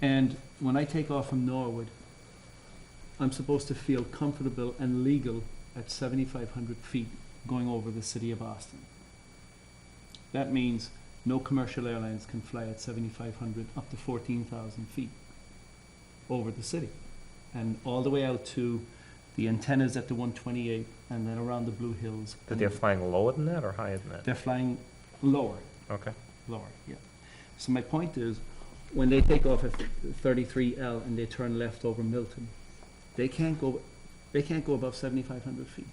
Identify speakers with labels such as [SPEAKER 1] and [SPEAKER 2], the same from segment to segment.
[SPEAKER 1] And when I take off from Norwood, I'm supposed to feel comfortable and legal at 7,500 feet going over the city of Austin. That means no commercial airlines can fly at 7,500 up to 14,000 feet over the city. And all the way out to the antennas at the 128 and then around the Blue Hills.
[SPEAKER 2] That
[SPEAKER 1] and
[SPEAKER 2] they're flying lower than that or higher than that?
[SPEAKER 1] They're flying lower.
[SPEAKER 2] Okay.
[SPEAKER 1] Lower, yeah. So my point is, when they take off at thirty-three L and they turn left over Milton, they can't go, they can't go above seventy-five hundred feet.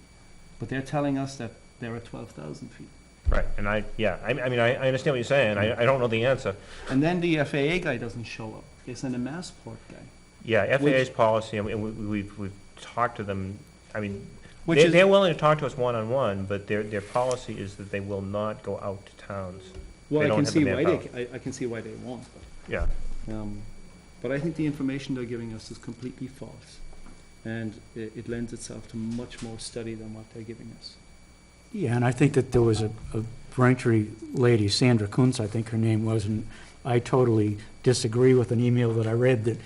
[SPEAKER 1] But they're telling us that they're at twelve thousand feet.
[SPEAKER 2] Right, and I, yeah, I, I mean, I, I understand what you're saying, I, I don't know the answer.
[SPEAKER 1] And then the FAA guy doesn't show up. They send a Massport guy,
[SPEAKER 2] Yeah,
[SPEAKER 1] Which-
[SPEAKER 2] FAA's policy, and we, we- we've, we've talked to them, I mean,
[SPEAKER 1] which
[SPEAKER 2] they're,
[SPEAKER 1] is,
[SPEAKER 2] they're willing to talk to us one-on-one, but their, their policy is that they will not go out to towns.
[SPEAKER 1] well,
[SPEAKER 2] they
[SPEAKER 1] I
[SPEAKER 2] don't
[SPEAKER 1] can
[SPEAKER 2] have the
[SPEAKER 1] see why they,
[SPEAKER 2] manpower.
[SPEAKER 1] ca- I, I can see why they won't. but-
[SPEAKER 2] Yeah,
[SPEAKER 1] Um, But I think the information they're giving us is completely false, and it, it lends itself to much more study than what they're giving us.
[SPEAKER 3] Yeah, and I think that there was a, a Braintree lady, Sandra Kuntz, I think her name was, and I totally disagree with an email that I read that,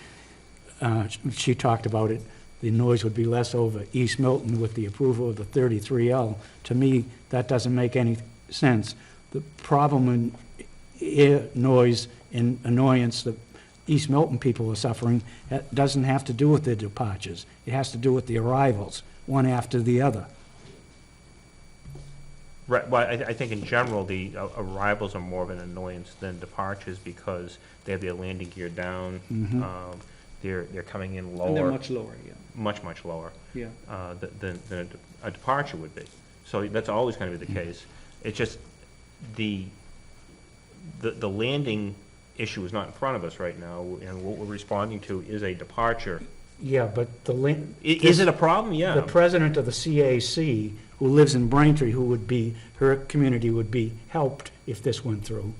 [SPEAKER 3] uh, she talked about it, the noise would be less over East Milton with the approval of the thirty-three L. To me, that doesn't make any sense. The problem in ear noise and annoyance that East Milton people are suffering, that doesn't have to do with their departures. It has to do with the arrivals, one after the other.
[SPEAKER 2] right, well, I, I think in general, the uh, arrivals are more of an annoyance than departures because they have their landing gear down,
[SPEAKER 3] Mhm.
[SPEAKER 2] um, they're, they're coming in
[SPEAKER 1] And they're
[SPEAKER 2] lower,
[SPEAKER 1] much lower, yeah,
[SPEAKER 2] much, much lower.
[SPEAKER 1] yeah.
[SPEAKER 2] uh, th- than, than a de- a departure would be. So that's always going to be the case. It's just the, the, the landing issue is not in front of us right now, and what we're responding to is a departure.
[SPEAKER 3] Yeah, but the, lin-
[SPEAKER 2] I- Is it a problem?
[SPEAKER 3] the
[SPEAKER 2] Yeah.
[SPEAKER 3] president of the CAC, who lives in Braintree, who would be, her community would be helped if this went through,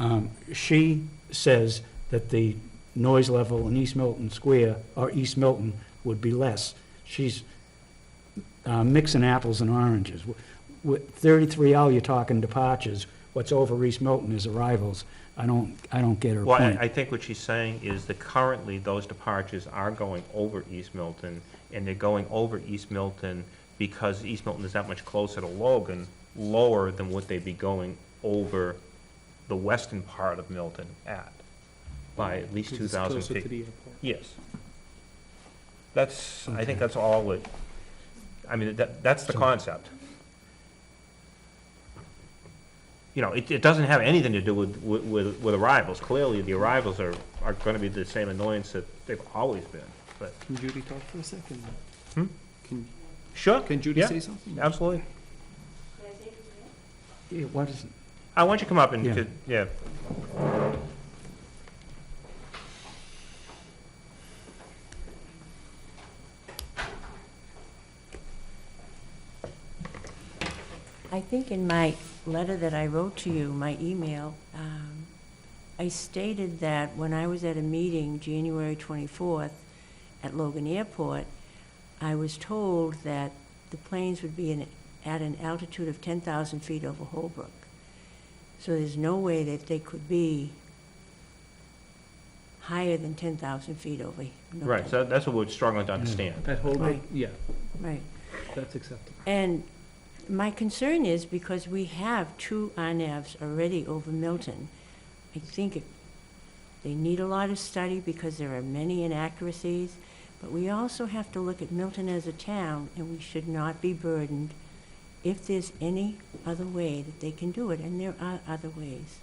[SPEAKER 3] um, she says that the noise level in East Milton Square, or East Milton, would be less. She's uh, mixing apples and oranges. Wi- With 33L, you're talking departures. What's over East Milton is arrivals. I don't, I don't get her
[SPEAKER 2] Well,
[SPEAKER 3] point.
[SPEAKER 2] I, I think what she's saying is that currently those departures are going over East Milton, and they're going over East Milton because East Milton is that much closer to Logan, lower than what they'd be going over the western part of Milton at, by at least two
[SPEAKER 1] Because it's
[SPEAKER 2] thousand
[SPEAKER 1] Closer to
[SPEAKER 2] feet.
[SPEAKER 1] the airport.
[SPEAKER 2] Yes. That's, I
[SPEAKER 3] Okay.
[SPEAKER 2] think that's all it, I mean, that, that's the
[SPEAKER 3] So-
[SPEAKER 2] concept. You know, it, it doesn't have anything to do with, with- with, with arrivals. Clearly, the arrivals are, are gonna be the same annoyance that they've always been, but,
[SPEAKER 1] Can Judy talk for a second?
[SPEAKER 2] Hmm?
[SPEAKER 1] Can,
[SPEAKER 2] sure,
[SPEAKER 1] can Judy
[SPEAKER 2] Yeah.
[SPEAKER 1] say something?
[SPEAKER 2] absolutely.
[SPEAKER 3] Yeah, What is,
[SPEAKER 2] I want Uh, you to come up and,
[SPEAKER 3] Yeah.
[SPEAKER 2] could- yeah,
[SPEAKER 4] I think in my letter that I wrote to you, my email, um, I stated that when I was at a meeting January 24th at Logan Airport, I was told that the planes would be in- at an altitude of 10,000 feet over Holbrook. So there's no way that they could be higher than 10,000 feet over. no,
[SPEAKER 2] right, so that's what we're struggling to understand.
[SPEAKER 1] At Holbrook,
[SPEAKER 4] Right.
[SPEAKER 1] Oh, yeah,
[SPEAKER 4] Right.
[SPEAKER 1] that's acceptable.
[SPEAKER 4] And my concern is because we have two INAVs already over Milton. I think it- they need a lot of study because there are many inaccuracies, but we also have to look at Milton as a town, and we should not be burdened if there's any other way that they can do it, and there are other ways.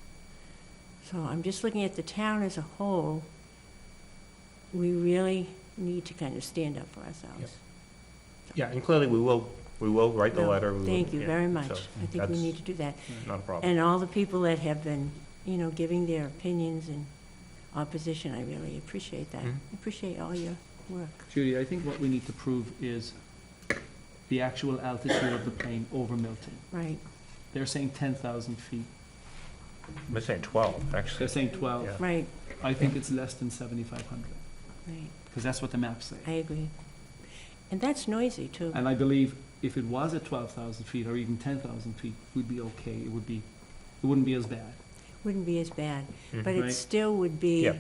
[SPEAKER 4] So I'm just looking at the town as a whole. We really need to kind of stand up for ourselves.
[SPEAKER 2] Yeah, and clearly, we will, we will write the
[SPEAKER 4] No,
[SPEAKER 2] letter. we will-
[SPEAKER 4] Thank you
[SPEAKER 2] yeah,
[SPEAKER 4] very much.
[SPEAKER 2] so
[SPEAKER 4] I think we
[SPEAKER 2] that's
[SPEAKER 4] need to do that.
[SPEAKER 2] Not a problem.
[SPEAKER 4] And all the people that have been, you know, giving their opinions and opposition, I really appreciate that.
[SPEAKER 2] Mhm.
[SPEAKER 4] I Appreciate all your work.
[SPEAKER 1] Judy, I think what we need to prove is the actual altitude of the plane over Milton.
[SPEAKER 4] Right,
[SPEAKER 1] They're saying ten thousand feet,
[SPEAKER 2] I'm saying twelve, actually.
[SPEAKER 1] they're saying twelve.
[SPEAKER 2] Yeah.
[SPEAKER 4] right,
[SPEAKER 1] I think it's less than seventy-five hundred,
[SPEAKER 4] right.
[SPEAKER 1] because that's what the maps
[SPEAKER 4] I
[SPEAKER 1] say.
[SPEAKER 4] agree. And that's noisy, too.
[SPEAKER 1] And I believe if it was at twelve thousand feet or even ten thousand feet, we'd be okay, it would be, it wouldn't be as bad.
[SPEAKER 4] Wouldn't be as bad,
[SPEAKER 2] Mhm.
[SPEAKER 4] but
[SPEAKER 1] Right.
[SPEAKER 4] it still would be.
[SPEAKER 2] Yeah.